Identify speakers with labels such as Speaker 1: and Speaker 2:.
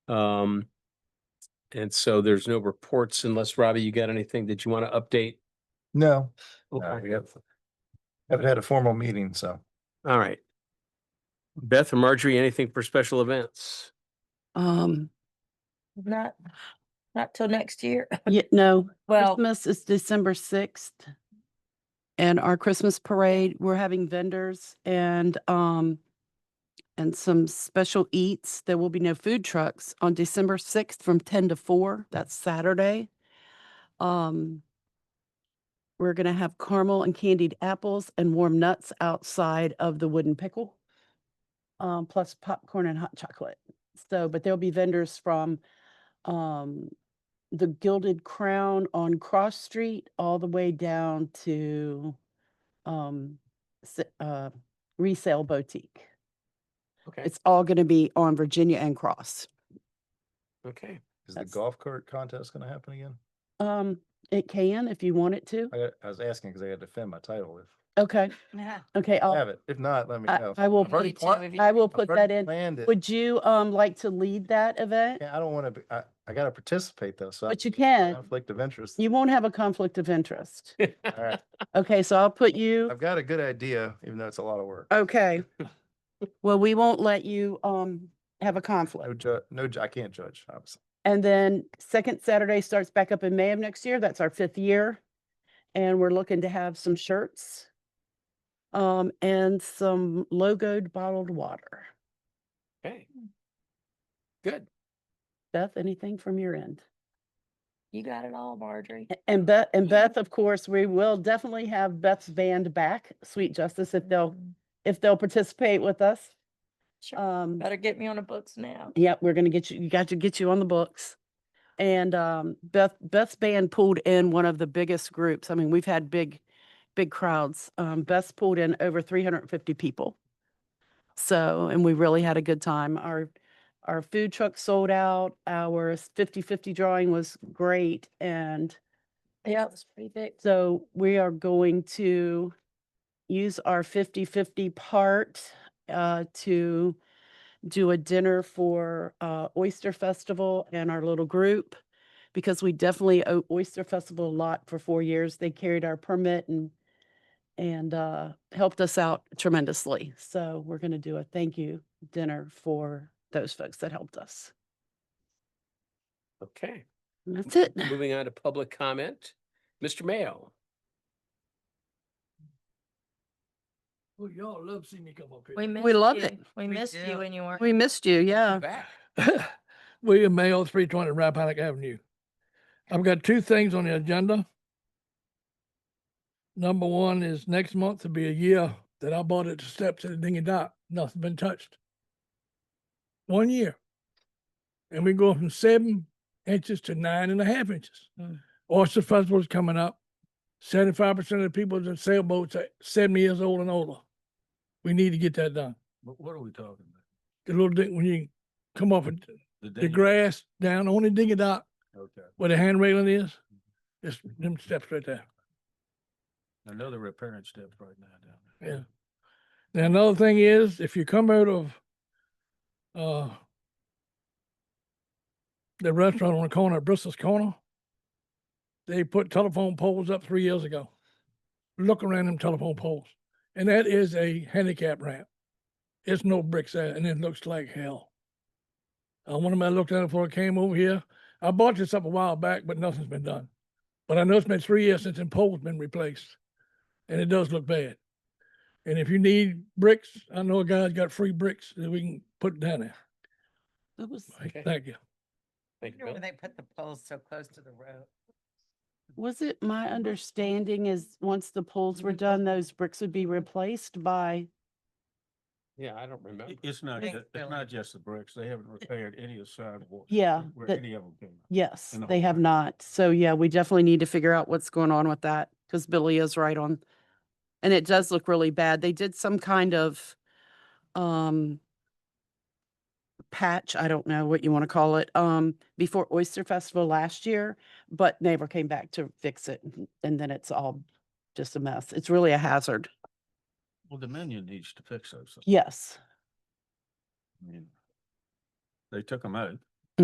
Speaker 1: Um, and so there's no reports unless Robbie, you got anything that you want to update?
Speaker 2: No,
Speaker 1: Okay.
Speaker 2: we have, haven't had a formal meeting, so.
Speaker 1: All right. Beth or Marjorie, anything for special events?
Speaker 3: Um,
Speaker 4: Not, not till next year.
Speaker 3: yeah, no,
Speaker 4: Well,
Speaker 3: Christmas is December sixth. And our Christmas parade, we're having vendors and, um, and some special eats. There will be no food trucks on December sixth from ten to four. That's Saturday. Um, we're gonna have caramel and candied apples and warm nuts outside of the wooden pickle. Um, plus popcorn and hot chocolate. So, but there'll be vendors from, um, the Gilded Crown on Cross Street all the way down to um s- uh resale boutique.
Speaker 1: Okay,
Speaker 3: It's all gonna be on Virginia and Cross.
Speaker 1: okay.
Speaker 2: Is the
Speaker 3: That's-
Speaker 2: golf cart contest gonna happen again?
Speaker 3: Um, it can if you want it to.
Speaker 2: I, got- I was asking because I had to defend my title if
Speaker 3: Okay,
Speaker 4: yeah.
Speaker 3: okay,
Speaker 2: I
Speaker 3: I'll,
Speaker 2: have it. If not, let me
Speaker 3: Oh. I,
Speaker 2: know.
Speaker 3: I will,
Speaker 2: I've already
Speaker 4: You too,
Speaker 2: planned-
Speaker 4: if you-
Speaker 3: I will
Speaker 2: I've
Speaker 3: put
Speaker 2: already
Speaker 3: that in.
Speaker 2: Planned it.
Speaker 3: Would you um like to lead that event?
Speaker 2: Yeah, I don't wanna, be- I, I gotta participate though, so. I-
Speaker 3: But you can.
Speaker 2: Conflict of interest.
Speaker 3: You won't have a conflict of interest.
Speaker 2: All right,
Speaker 3: Okay, so I'll put you.
Speaker 2: I've got a good idea, even though it's a lot of
Speaker 3: Uh,
Speaker 2: work.
Speaker 3: Okay. Well, we won't let you um have a
Speaker 2: No
Speaker 3: conflict.
Speaker 2: ju, no, ju- I can't judge, obviously.
Speaker 3: And then second Saturday starts back up in May of next year. That's our fifth year. And we're looking to have some shirts. Um, and some logoed bottled water.
Speaker 1: Okay. Good.
Speaker 3: Beth, anything from your end?
Speaker 4: You got it all, Marjorie.
Speaker 3: A- And Beth, and
Speaker 4: Yeah.
Speaker 3: Beth, of course, we will definitely have Beth's band back, Sweet Justice, if they'll, if they'll participate with us.
Speaker 4: Sure.
Speaker 3: Um,
Speaker 4: Better get me on the books now.
Speaker 3: Yep, we're gonna get you, you got to get you on the books. And um, Beth, Beth's band pulled in one of the biggest groups. I mean, we've had big, big crowds. Um, Beth's pulled in over three hundred and fifty people. So, and we really had a good time. Our, our food truck sold out, our 50-50 drawing was great. And
Speaker 4: Yeah, it's pretty big.
Speaker 3: so we are going to use our 50-50 part uh, to do a dinner for uh, Oyster Festival and our little group because we definitely owe Oyster Festival a lot for four years. They carried our permit and and uh, helped us out tremendously. So we're going to do a thank you dinner for those folks that helped us.
Speaker 1: Okay,
Speaker 3: And that's it.
Speaker 1: moving on to public comment. Mr. Mayo.
Speaker 5: Well, Oh, y'all love seeing me come up here.
Speaker 4: We missed
Speaker 3: loved
Speaker 4: you.
Speaker 3: it.
Speaker 4: We
Speaker 5: We
Speaker 4: missed you
Speaker 5: did.
Speaker 4: when you weren't.
Speaker 3: We missed you. Yeah.
Speaker 1: Back.
Speaker 5: William Mayo, three twenty Rappahannock Avenue. I've got two things on the agenda. Number one is next month will be a year that I bought at the steps at the Dingy Dock. Nothing been touched. One year. And we go from seven inches to nine and a half inches. Oyster Festival is coming up. Seventy-five percent of the people in sailboats are seventy years old and older. We need to get that done.
Speaker 6: What, what are we talking about?
Speaker 5: the little thing when you come off of the
Speaker 6: dam?
Speaker 5: grass down, only dig it out
Speaker 6: Okay,
Speaker 5: where the hand railing is. Just them steps right there.
Speaker 6: I know they're repairing steps right now down there.
Speaker 5: Yeah. Now another thing is if you come out of uh the restaurant on the corner, Bristol's corner, they put telephone poles up three years ago. Look around them telephone poles. And that is a handicap ramp. It's no bricks there and it looks like hell. Uh, one of them I looked at it before I came over here. I bought this up a while back, but nothing's been done. But I know it's been three years since the pole's been replaced. And it does look bad. And if you need bricks, I know a guy's got free bricks that we can put down there.
Speaker 3: It was
Speaker 1: Okay.
Speaker 5: Thank you.
Speaker 1: Thank you,
Speaker 7: Wonder
Speaker 1: Bill.
Speaker 7: When they put the poles so close to the road.
Speaker 3: Was it my understanding is once the poles were done, those bricks would be replaced by,
Speaker 1: Yeah, I don't remember.
Speaker 6: It- It's not,
Speaker 7: Thanks,
Speaker 6: ju-
Speaker 7: Billy.
Speaker 6: it's not just the bricks. They haven't repaired any of the sidewalks.
Speaker 3: Yeah,
Speaker 6: Where
Speaker 3: that-
Speaker 6: any of them came out.
Speaker 3: yes,
Speaker 6: And the
Speaker 3: they
Speaker 6: whole
Speaker 3: have
Speaker 6: thing.
Speaker 3: not. So yeah, we definitely need to figure out what's going on with that because Billy is right on. And it does look really bad. They did some kind of um patch, I don't know what you want to call it, um, before Oyster Festival last year, but neighbor came back to fix it and- and then it's all just a mess. It's really a hazard.
Speaker 6: Well, Dominion needs to fix those. things.
Speaker 3: Yes.
Speaker 6: I mean, They took them out.